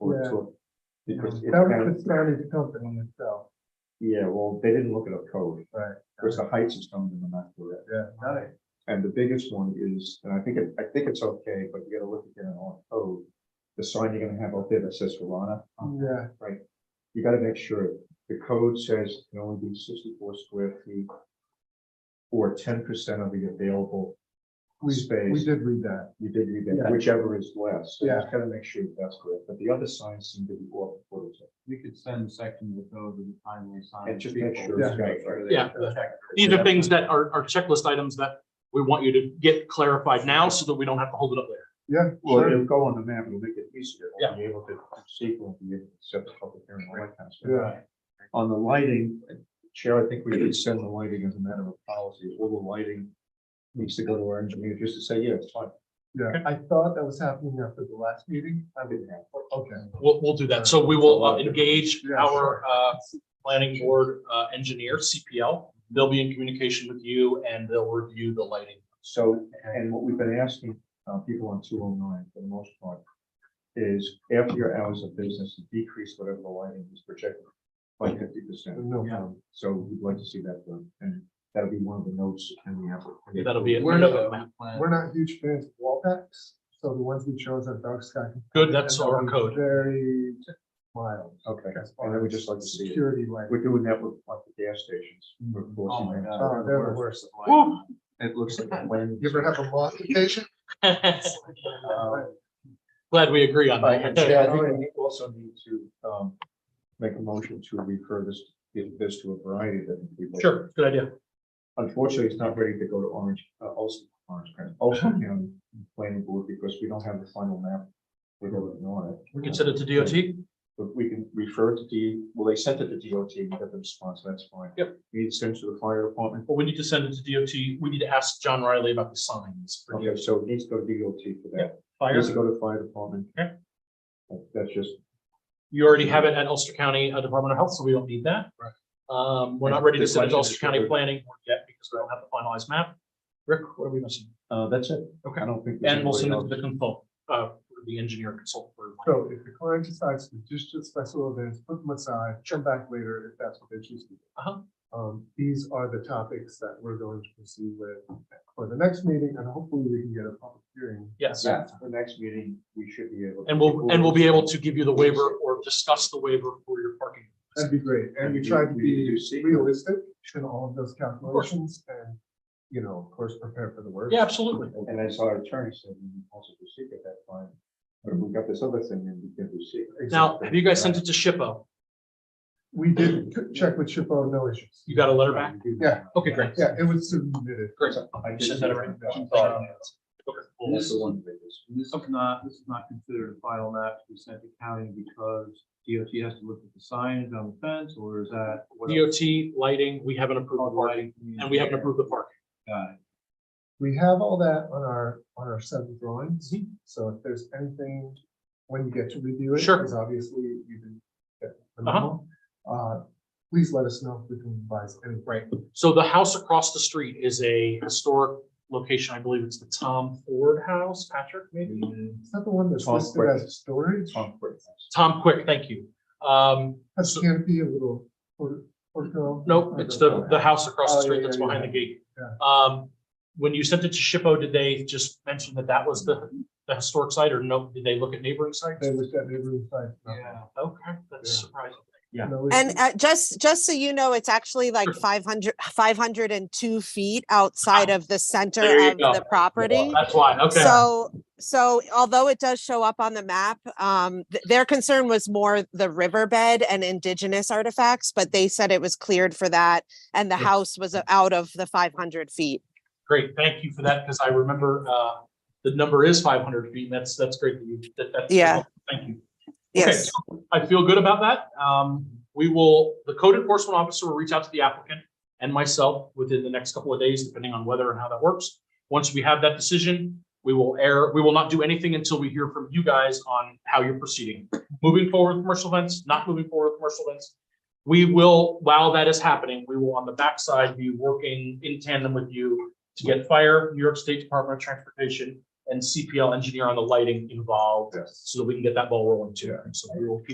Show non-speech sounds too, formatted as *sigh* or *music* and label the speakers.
Speaker 1: that's what. Because it's
Speaker 2: That
Speaker 1: kind
Speaker 2: was
Speaker 1: of,
Speaker 2: Pastrana's company in itself,
Speaker 1: yeah, well, they didn't look it up code,
Speaker 2: right?
Speaker 1: because the heights is coming in the map for it.
Speaker 2: Yeah, nice.
Speaker 1: And the biggest one is, and I think, it- I think it's okay, but you gotta look again on code. The sign you're gonna have out there that says Solana,
Speaker 2: Yeah,
Speaker 1: you gotta make sure the code says it can only be sixty-four square feet. Or ten percent of the available
Speaker 2: we, we
Speaker 1: space.
Speaker 2: did read that.
Speaker 1: You did read that,
Speaker 2: Yeah.
Speaker 1: whichever is less. So
Speaker 2: Yeah.
Speaker 1: Just gotta make sure that's correct, but the other signs seem to be off. quarters.
Speaker 3: We could send sections of those with the timely sign.
Speaker 1: And just make sure.
Speaker 2: Yeah.
Speaker 1: it's got it right.
Speaker 4: Yeah. These are things that are, are checklist items that we want you to get clarified now so that we don't have to hold it up later.
Speaker 2: Yeah,
Speaker 1: Well,
Speaker 2: sure.
Speaker 1: it'll go on the map, it'll make it easier. We'll
Speaker 4: Yeah.
Speaker 1: Be able to see, we'll be able to set the public hearing, all that kind of stuff.
Speaker 2: Yeah.
Speaker 1: On the lighting, Chair, I think we could send the lighting as a matter of policy, all the lighting needs to go to our engineer, just to say, yeah, it's fine.
Speaker 2: Yeah, I thought that was happening after the last meeting.
Speaker 1: I didn't have.
Speaker 2: Okay.
Speaker 4: We'll, we'll do that. So we will uh, engage our uh, planning board uh, engineer, CPL. They'll be in communication with you and they'll review the lighting.
Speaker 1: So, and what we've been asking, uh, people on two oh nine for the most part, is after your hours of business, decrease whatever the lighting is projected by fifty percent. Um,
Speaker 2: No
Speaker 3: Yeah.
Speaker 2: problem.
Speaker 1: So we'd like to see that done, and that'll be one of the notes in the application.
Speaker 4: That'll be it.
Speaker 2: We're not- We're not huge fans of wall packs, so the ones we chose are dark sky.
Speaker 4: Good, that's
Speaker 2: And that
Speaker 4: our
Speaker 2: was
Speaker 4: code.
Speaker 2: Very mild.
Speaker 1: Okay,
Speaker 2: as
Speaker 1: and
Speaker 2: far
Speaker 1: I would
Speaker 2: as
Speaker 1: just like to see it.
Speaker 2: Security light.
Speaker 1: We're doing that with like the gas stations. We're
Speaker 3: Oh,
Speaker 1: forcing
Speaker 3: my
Speaker 1: them.
Speaker 3: God.
Speaker 2: Oh, they're the
Speaker 3: Worse.
Speaker 4: Woo. *laughs*
Speaker 1: It looks like a plan.
Speaker 2: You ever have a loss occasion?
Speaker 1: Uh,
Speaker 4: Glad we agree on *laughs*
Speaker 1: And Chad, I
Speaker 4: that.
Speaker 1: think we also need to um make a motion to refer this, give this to a variety of different people.
Speaker 4: Sure, good idea.
Speaker 1: Unfortunately, it's not ready to go to Orange, uh, Olson, Orange, County- Olson County Planning Board because we don't have the final map. We're going on it,
Speaker 4: We can send it to DOT.
Speaker 1: but we can refer to D, well, they sent it to DOT, we got the response, that's fine.
Speaker 4: Yep.
Speaker 1: We need to send it to the fire department.
Speaker 4: But we need to send it to DOT. We need to ask John Riley about the signs. for
Speaker 1: Okay, so it needs to go to DOT for that.
Speaker 4: Fire,
Speaker 1: Needs to go to fire department.
Speaker 4: Okay.
Speaker 1: That- That's just
Speaker 4: you already have it at Ulster County uh, Department of Health, so we don't need that. Um, we're not ready to
Speaker 1: Good
Speaker 4: send it to
Speaker 1: question,
Speaker 4: Ulster
Speaker 1: Mr.
Speaker 4: County
Speaker 1: Rick.
Speaker 4: Planning Board yet because we don't have the finalized map. Rick, what are we missing?
Speaker 1: Uh, that's it.
Speaker 4: Okay.
Speaker 1: I don't think. there's
Speaker 4: And we'll send it
Speaker 1: anybody
Speaker 4: to the consult, uh, the engineer consultant. for
Speaker 2: So if the client decides to just do special events, put them aside, come back later if that's what they choose to do.
Speaker 4: Uh-huh.
Speaker 2: Um, these are the topics that we're going to proceed with for the next meeting and hopefully we can get a public hearing.
Speaker 4: Yes,
Speaker 1: else. Yeah, for the next meeting, we should be able.
Speaker 4: and we'll, and we'll be able to give you the waiver or discuss the waiver for your parking.
Speaker 2: That'd be great. And we
Speaker 1: And
Speaker 2: tried to
Speaker 1: we- we
Speaker 2: be
Speaker 1: do see-
Speaker 2: realistic in all of those calculations and, you know, of course, prepare for the worst.
Speaker 4: Yeah, absolutely.
Speaker 1: And as our attorney said, we can also proceed at that time. But if we got this other thing, then we can proceed.
Speaker 4: Now, have you guys sent it to SHPO?
Speaker 2: We did c- check with Shippo, no issues.
Speaker 4: You got a letter back?
Speaker 2: Yeah.
Speaker 4: Okay, great.
Speaker 2: Yeah, it was submitted.
Speaker 4: Great.
Speaker 1: I
Speaker 4: You
Speaker 1: just-
Speaker 4: sent that already?
Speaker 1: Oh,
Speaker 4: Okay, cool.
Speaker 1: That's the one. that is-
Speaker 3: This is not, this is not considered a final map to be sent to county because DOT has to look at the signs on the fence or is that? what else?
Speaker 4: DOT, lighting, we haven't approved the parking, and we haven't approved the parking.
Speaker 3: Got it.
Speaker 2: We have all that on our, on our set of drawings, so if there's anything, when you get to review it.
Speaker 4: Sure.
Speaker 2: Because obviously you didn't get the
Speaker 4: Uh-huh.
Speaker 2: memo, uh, please let us know if we can revise anything.
Speaker 4: Right. So the house across the street is a historic location. I believe it's the Tom Ford House, Patrick, maybe?
Speaker 2: Is that the one that's
Speaker 1: Tom
Speaker 2: listed
Speaker 1: Quick.
Speaker 2: as storage?
Speaker 1: Tom Quick.
Speaker 4: Tom Quick, thank you. Um,
Speaker 2: Has canopy a little, or, or?
Speaker 4: Nope, it's the, the house across the
Speaker 2: Oh,
Speaker 4: street
Speaker 2: yeah,
Speaker 4: that's
Speaker 2: yeah,
Speaker 4: behind the
Speaker 2: yeah.
Speaker 4: gate. Um, when you sent it to Shippo, did they just mention that that was the, the historic site or no, did they look at neighboring sites?
Speaker 2: They looked at neighboring sites. nothing.
Speaker 3: Yeah.
Speaker 4: Okay, that's
Speaker 2: Yeah.
Speaker 4: surprising.
Speaker 1: Yeah.
Speaker 2: No issues.
Speaker 5: And uh, just, just so you know, it's actually like
Speaker 4: Sure.
Speaker 5: 500, 502 feet outside of the
Speaker 4: There
Speaker 5: center
Speaker 4: you
Speaker 5: of
Speaker 4: go.
Speaker 5: the property.
Speaker 4: That's why, okay.
Speaker 5: So, so although it does show up on the map, um, th- their concern was more the riverbed and indigenous artifacts, but they said it was cleared for that. And the
Speaker 4: Yeah.
Speaker 5: house was out of the 500 feet.
Speaker 4: Great, thank you for that, because I remember, uh, the number is five hundred feet, and that's, that's great that you, that, that's.
Speaker 5: Yeah.
Speaker 4: Thank you. Okay,
Speaker 5: Yes.
Speaker 4: so I feel good about that. Um, we will, the code enforcement officer will reach out to the applicant and myself within the next couple of days, depending on whether and how that works. Once we have that decision, we will air, we will not do anything until we hear from you guys on how you're proceeding. Moving forward with commercial events, not moving forward with commercial events. We will, while that is happening, we will on the backside be working in tandem with you to get fire, New York State Department of Transportation, and CPL engineer on the lighting involved,
Speaker 1: Yes.
Speaker 4: so that we can get that ball rolling too. So we will keep